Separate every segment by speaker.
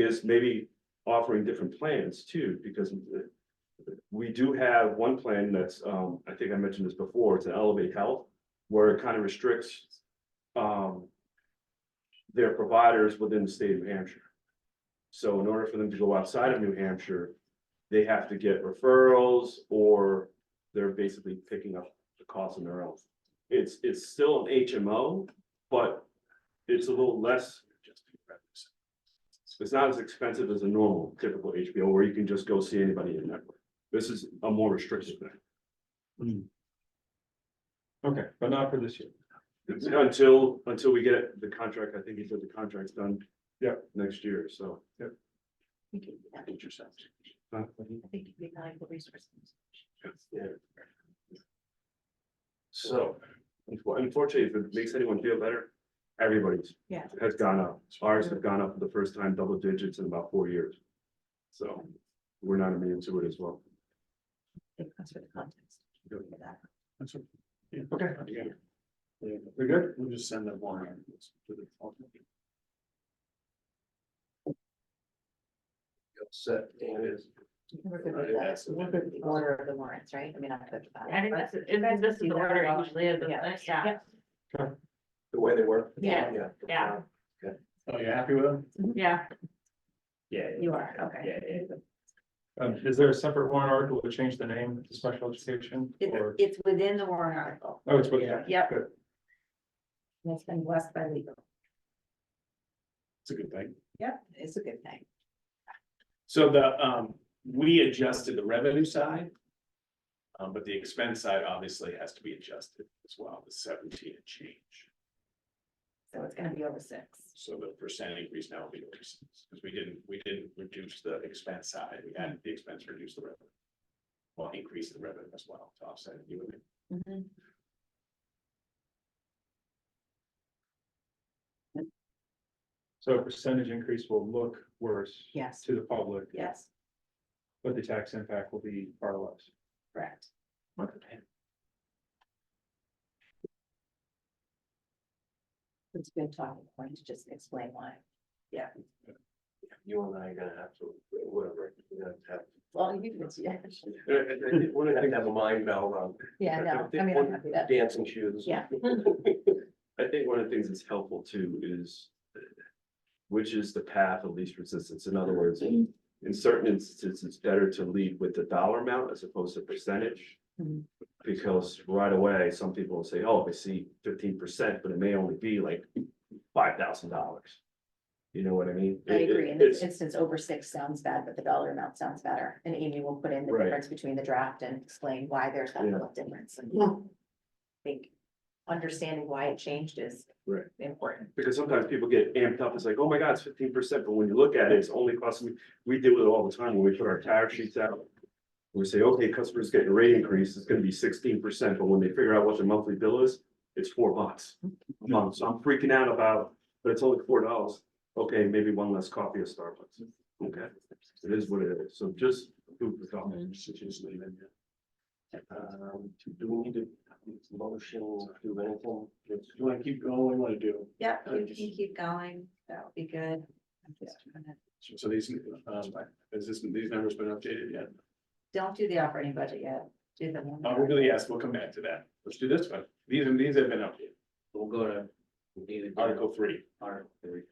Speaker 1: is maybe offering different plans too, because. We do have one plan that's, um, I think I mentioned this before, it's an Elevate Health, where it kind of restricts. Um. Their providers within the state of New Hampshire. So in order for them to go outside of New Hampshire, they have to get referrals or they're basically picking up the cost on their own. It's, it's still an HMO, but it's a little less. It's not as expensive as a normal typical HBO where you can just go see anybody in network. This is a more restrictive
Speaker 2: Hmm. Okay, but not for this year.
Speaker 1: thing. Until, until we get the contract, I think he said the contract's done.
Speaker 2: Yeah.
Speaker 1: Next year, so.
Speaker 3: We could do that.
Speaker 1: uh,
Speaker 2: Mm-hmm.
Speaker 3: I think it'd be valuable resource.
Speaker 1: yeah. So unfortunately, if it makes anyone feel better, everybody's
Speaker 3: Yeah.
Speaker 1: has gone up. Ours have gone up for the first time double digits in about four years. So we're not immune to it as well.
Speaker 3: That's for the context.
Speaker 1: Yeah.
Speaker 3: For that.
Speaker 2: That's right. Yeah, okay. Yeah, we're good, we'll just send that one. Set, it is.
Speaker 3: We're good with
Speaker 2: Right,
Speaker 3: that.
Speaker 2: that's-
Speaker 3: We're good with the order of the warrants, right? I mean, I'm good with that.
Speaker 4: I think that's, and this is the order it usually is, isn't it? Yeah,
Speaker 3: Yeah.
Speaker 2: The way they work.
Speaker 4: Yeah.
Speaker 2: Yeah.
Speaker 4: Yeah.
Speaker 2: Oh, you happy with them?
Speaker 4: yeah.
Speaker 2: Yeah.
Speaker 3: You are, okay.
Speaker 2: Um, is there a separate warrant article to change the name to special education
Speaker 3: It's,
Speaker 2: or?
Speaker 3: it's within the warrant article.
Speaker 2: Oh, it's what, yeah.
Speaker 3: Yep.
Speaker 2: good.
Speaker 3: And it's been blessed by legal.
Speaker 2: It's a good thing.
Speaker 3: Yep, it's a good thing.
Speaker 5: So the, um, we adjusted the revenue side. Um, but the expense side obviously has to be adjusted as well, the seventeen and change,
Speaker 3: So it's gonna be over six.
Speaker 5: so the percent increase now will be reduced. Because we didn't, we didn't reduce the expense side, we had the expense reduce the revenue. Well, increase the revenue as well to offset it. You would-
Speaker 3: Mhm.
Speaker 2: So a percentage increase will look worse
Speaker 3: Yes,
Speaker 2: to the public,
Speaker 3: yes,
Speaker 2: but the tax impact will be far less.
Speaker 3: correct. It's good talking point to just explain why.
Speaker 1: You and I are gonna have to, whatever, you know, have.
Speaker 3: Well, you can, yeah,
Speaker 1: One of the things
Speaker 5: have a mind meld on
Speaker 3: yeah, no, I mean, I'm happy that,
Speaker 5: dancing shoes.
Speaker 3: yeah,
Speaker 1: I think one of the things that's helpful too is. uh, Which is the path of least resistance, in other words, in
Speaker 3: Mm-hmm.
Speaker 1: in certain instances, it's better to lead with the dollar amount as opposed to percentage.
Speaker 3: Mhm.
Speaker 1: Because right away, some people will say, oh, I see fifteen percent, but it may only be like five thousand dollars. You know what I mean?
Speaker 3: I
Speaker 1: It- it-
Speaker 3: agree. In this
Speaker 1: it's-
Speaker 3: instance, over six sounds bad, but the dollar amount sounds better. And Amy will put in the
Speaker 1: Right.
Speaker 3: difference between the draft and explain why there's that
Speaker 1: Yeah.
Speaker 3: little difference. And I think understanding why it changed is
Speaker 1: Right.
Speaker 3: important.
Speaker 1: Because sometimes people get amped up, it's like, oh my God, it's fifteen percent, but when you look at it, it's only costing me, we do it all the time when we put our tariff sheets out. We say, okay, customers getting a rate increase, it's gonna be sixteen percent, but when they figure out what their monthly bill is, it's four bucks. a month. so I'm freaking out about, but it's only four dollars, okay, maybe one less coffee at Starbucks, okay? It is what it is, so just food for thought.
Speaker 5: Um, do we need to motion, do anything? Do you wanna keep going, what do you wanna do?
Speaker 3: Yeah,
Speaker 5: you can
Speaker 3: keep going. That'll be good.
Speaker 5: So so these, um, is this, these numbers been updated yet?
Speaker 3: Don't do the operating budget yet. Do the
Speaker 5: Oh, we're gonna, yes, we'll come back to that. Let's do this one. These, and these have been updated. We'll go to Article three. Article three.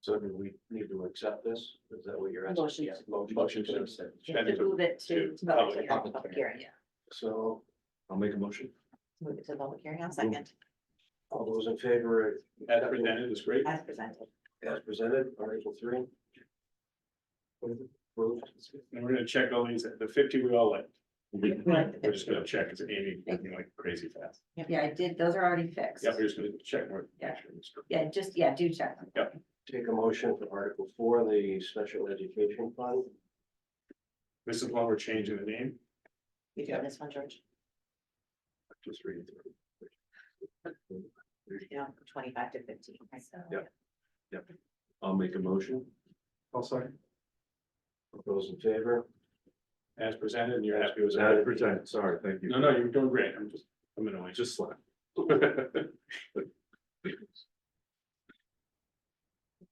Speaker 5: So do we need to accept this? Is that what you're
Speaker 3: asking? Motion. Yeah,
Speaker 5: Motion to accept.
Speaker 3: To move it to. public
Speaker 5: to public-
Speaker 3: hearing,
Speaker 5: public
Speaker 3: public hearing, yeah.
Speaker 5: So
Speaker 1: I'll make a motion.
Speaker 3: Move it to public hearing on second,
Speaker 5: all those in favor? As presented is great.
Speaker 3: as presented.
Speaker 5: As presented, Article three. And we're gonna check all these, the fifty we all liked.
Speaker 3: Right.
Speaker 5: We're just gonna check, it's Amy, looking like crazy fast.
Speaker 3: Yeah, I did, those are already fixed.
Speaker 5: Yeah, we're just gonna check more.
Speaker 3: Yeah. Yeah, just, yeah, do check them.
Speaker 6: Take a motion for Article four, the special education fund.
Speaker 5: This is why we're changing the name.
Speaker 3: You
Speaker 5: Yeah.
Speaker 3: doing this one, George?
Speaker 5: Just read it. through.
Speaker 3: You know, from twenty-five to fifteen, right? So,
Speaker 1: Yeah. I'll make a motion.
Speaker 2: I'll second.
Speaker 6: All Those in favor?
Speaker 5: As presented, and you're happy with
Speaker 1: As
Speaker 5: that?
Speaker 1: presented, sorry, thank you.
Speaker 5: No, no, you're doing great. I'm just, I'm annoying.
Speaker 1: Just slap.
Speaker 5: All